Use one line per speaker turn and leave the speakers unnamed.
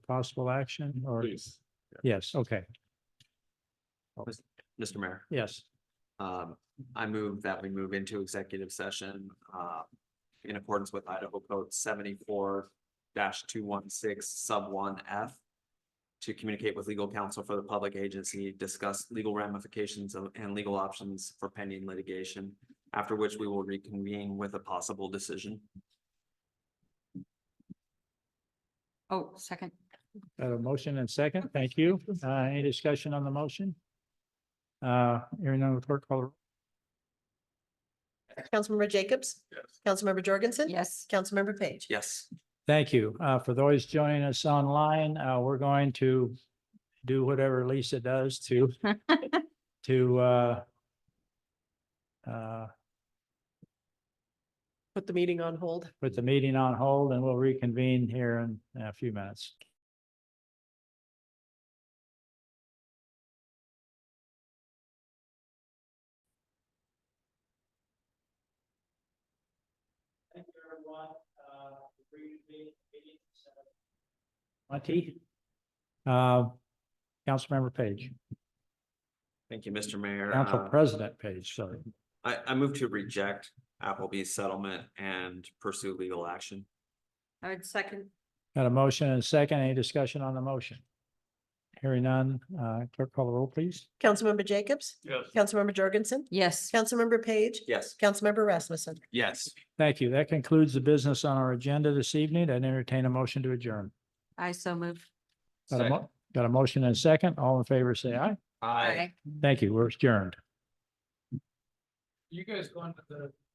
possible action or?
Please.
Yes, okay,
Mr. Mayor,
yes.
um, I move that we move into executive session, uh, in accordance with Idaho Code seventy-four two one six sub one F to communicate with legal counsel for the public agency, discuss legal ramifications of- and legal options for pending litigation, after which we will reconvene with a possible decision.
Oh, second.
Got a motion and second, thank you. Uh, any discussion on the motion? Uh, hearing none, clerk call the roll.
Councilmember Jacobs?
Yes.
Councilmember Jorgensen?
Yes.
Councilmember Page?
Yes.
Thank you. Uh, for those joining us online, uh, we're going to do whatever Lisa does to, to, uh, uh,
Put the meeting on hold.
put the meeting on hold and we'll reconvene here in a few minutes. Thank you, everyone. Monty? Uh, Councilmember Page,
Thank you, Mr. Mayor.
Council
Uh,
President Page, sorry.
I, I move to reject Applebee's settlement and pursue legal action.
I would second.
Got a motion and a second. Any discussion on the motion? Hearing none, uh, clerk call the roll, please.
Councilmember Jacobs?
Yes.
Councilmember Jorgensen?
Yes.
Councilmember Page?
Yes.
Councilmember Rasmussen?
Yes.
Thank you. That concludes the business on our agenda this evening. I entertain a motion to adjourn.
I so move.
Got a, mo- got a motion and a second. All in favor, say aye.
Aye.
Thank you. We're adjourned.
You guys going to the